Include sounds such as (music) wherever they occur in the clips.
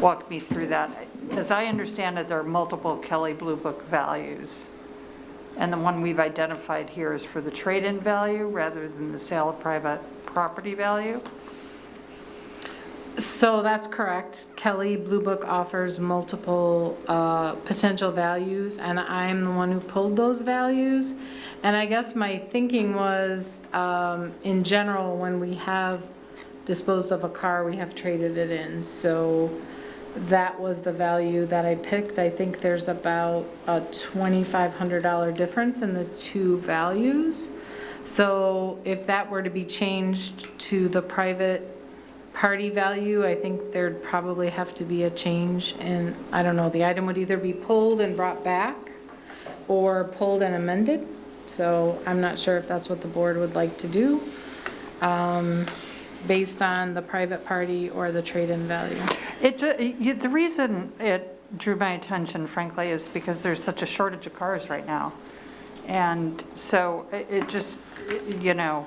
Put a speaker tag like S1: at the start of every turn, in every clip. S1: walk me through that. As I understand it, there are multiple Kelly Blue Book values. And the one we've identified here is for the trade-in value rather than the sale of private property value.
S2: So that's correct. Kelly Blue Book offers multiple uh, potential values, and I'm the one who pulled those values. And I guess my thinking was, um, in general, when we have disposed of a car, we have traded it in. So that was the value that I picked. I think there's about a $2,500 difference in the two values. So if that were to be changed to the private party value, I think there'd probably have to be a change, and I don't know, the item would either be pulled and brought back, or pulled and amended, so I'm not sure if that's what the board would like to do, um, based on the private party or the trade-in value.
S1: It, ju- you- the reason it drew my attention frankly is because there's such a shortage of cars right now. And so it- it just, you know,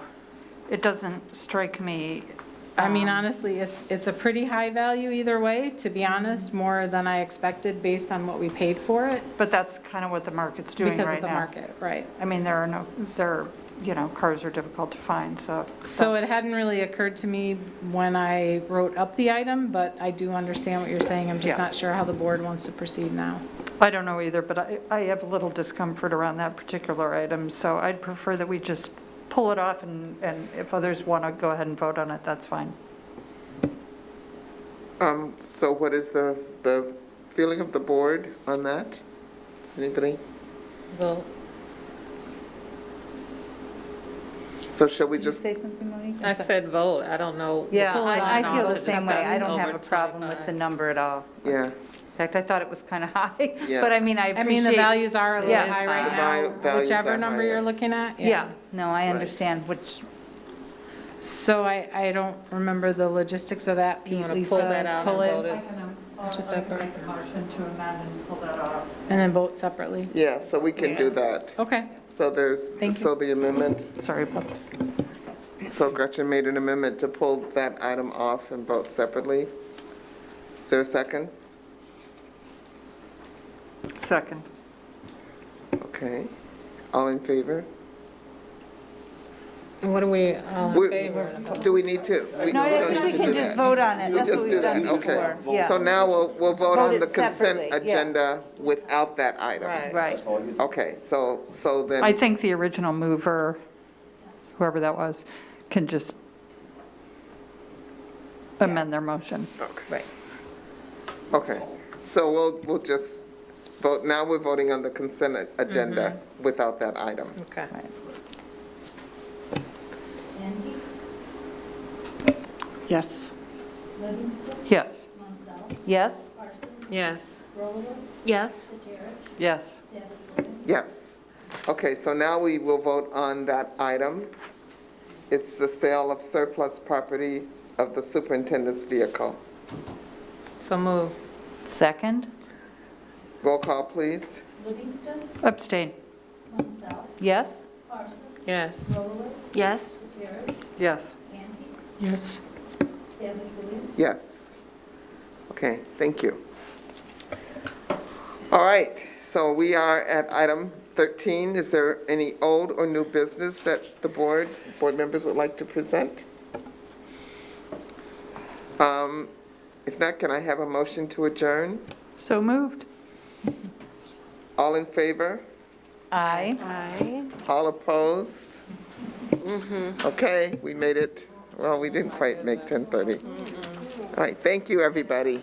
S1: it doesn't strike me.
S2: I mean,
S1: um,
S2: honestly, it- it's a pretty high value either way, to be honest, more than I expected based on what we paid for it,
S1: But that's kind of what the market's doing right now.
S2: because of the market, right?
S1: I mean, there are no, there, are, you know, cars are difficult to find, so.
S2: So it
S1: that's-
S2: hadn't really occurred to me when I wrote up the item, but I do understand what you're saying. I'm just
S1: Yeah.
S2: not sure how the board wants to proceed now.
S1: I don't know either, but I, I have a little discomfort around that particular item, so I'd prefer that we just pull it off and, and if others want to go ahead and vote on it, that's fine.
S3: Um, so what is the, the feeling of the board on that? Does anybody,
S4: Well,
S3: so shall we
S5: Did you
S3: just,
S5: say something, Monique?
S4: I said vote, I don't know.
S5: Yeah,
S2: Pull it
S5: I I
S2: on
S5: feel the
S2: to
S5: same way. I
S4: discuss
S5: don't have a
S4: over
S5: problem with the
S4: 25.
S5: number at all.
S3: yeah,
S5: In fact, I thought it was kind of (laughs) high,
S3: Yeah.
S5: but I mean, I
S2: I mean,
S5: appreciate.
S2: the values are a little
S5: Yeah.
S2: high
S4: The
S3: val-
S2: right now,
S3: values are
S2: whichever number
S3: higher.
S2: you're looking at.
S5: Yeah, no, I
S3: Right.
S5: understand, which,
S2: So I, I don't remember the logistics of that,
S4: You
S2: Pete,
S4: want to
S2: Lisa.
S4: pull that out
S2: pull
S4: and
S2: it,
S4: vote it?
S2: Just I'll separate. make
S1: uh, a motion to amend and pull that off.
S2: And then vote separately.
S3: yeah, so we can do that.
S2: Okay,
S3: So there's,
S2: Thank you.
S3: so the amendment,
S1: Sorry, but
S3: so Gretchen made an amendment to pull that item off and vote separately. Is there a second?
S1: second.
S3: Okay, all in favor?
S4: What are we, all in
S3: We-
S4: favor?
S3: Do we need to? we- we
S5: no, I
S3: don't
S5: think
S3: need
S5: we
S3: to
S5: can
S3: do
S5: just
S3: that.
S5: vote on it.
S3: We
S5: That's
S3: just
S5: what
S3: do
S5: we've
S3: that,
S5: done
S3: okay.
S5: before.
S3: So
S5: Yeah,
S3: now we'll, we'll vote
S5: Vote
S3: on
S5: it
S3: the consent
S5: separately, yeah.
S3: agenda without that item.
S4: Right.
S5: right.
S3: Okay, so, so then.
S1: I think the original mover, whoever that was, can just amend their motion.
S3: Okay. Okay, so we'll, we'll just vote, now we're voting on the consent a- agenda without that item.
S4: Okay.
S1: Yes. Yes.
S5: Yes?
S4: Yes. Yes.
S1: Yes.
S3: Yes. Okay, so now we will vote on that item. It's the sale of surplus property of the superintendent's vehicle.
S4: So move.
S5: Second?
S3: Roll call, please.
S1: Abstain.
S5: Yes?
S4: Yes.
S5: Yes.
S1: Yes.
S4: Yes.
S3: Yes. Okay, thank you. All right, so we are at item 13. Is there any old or new business that the board, board members would like to present? Um, If not, can I have a motion to adjourn?
S1: So moved.
S3: All in favor?
S5: Aye.
S3: All opposed? Mm-hmm. Okay, we made it. Well, we didn't quite make 10:30. All right, thank you, everybody.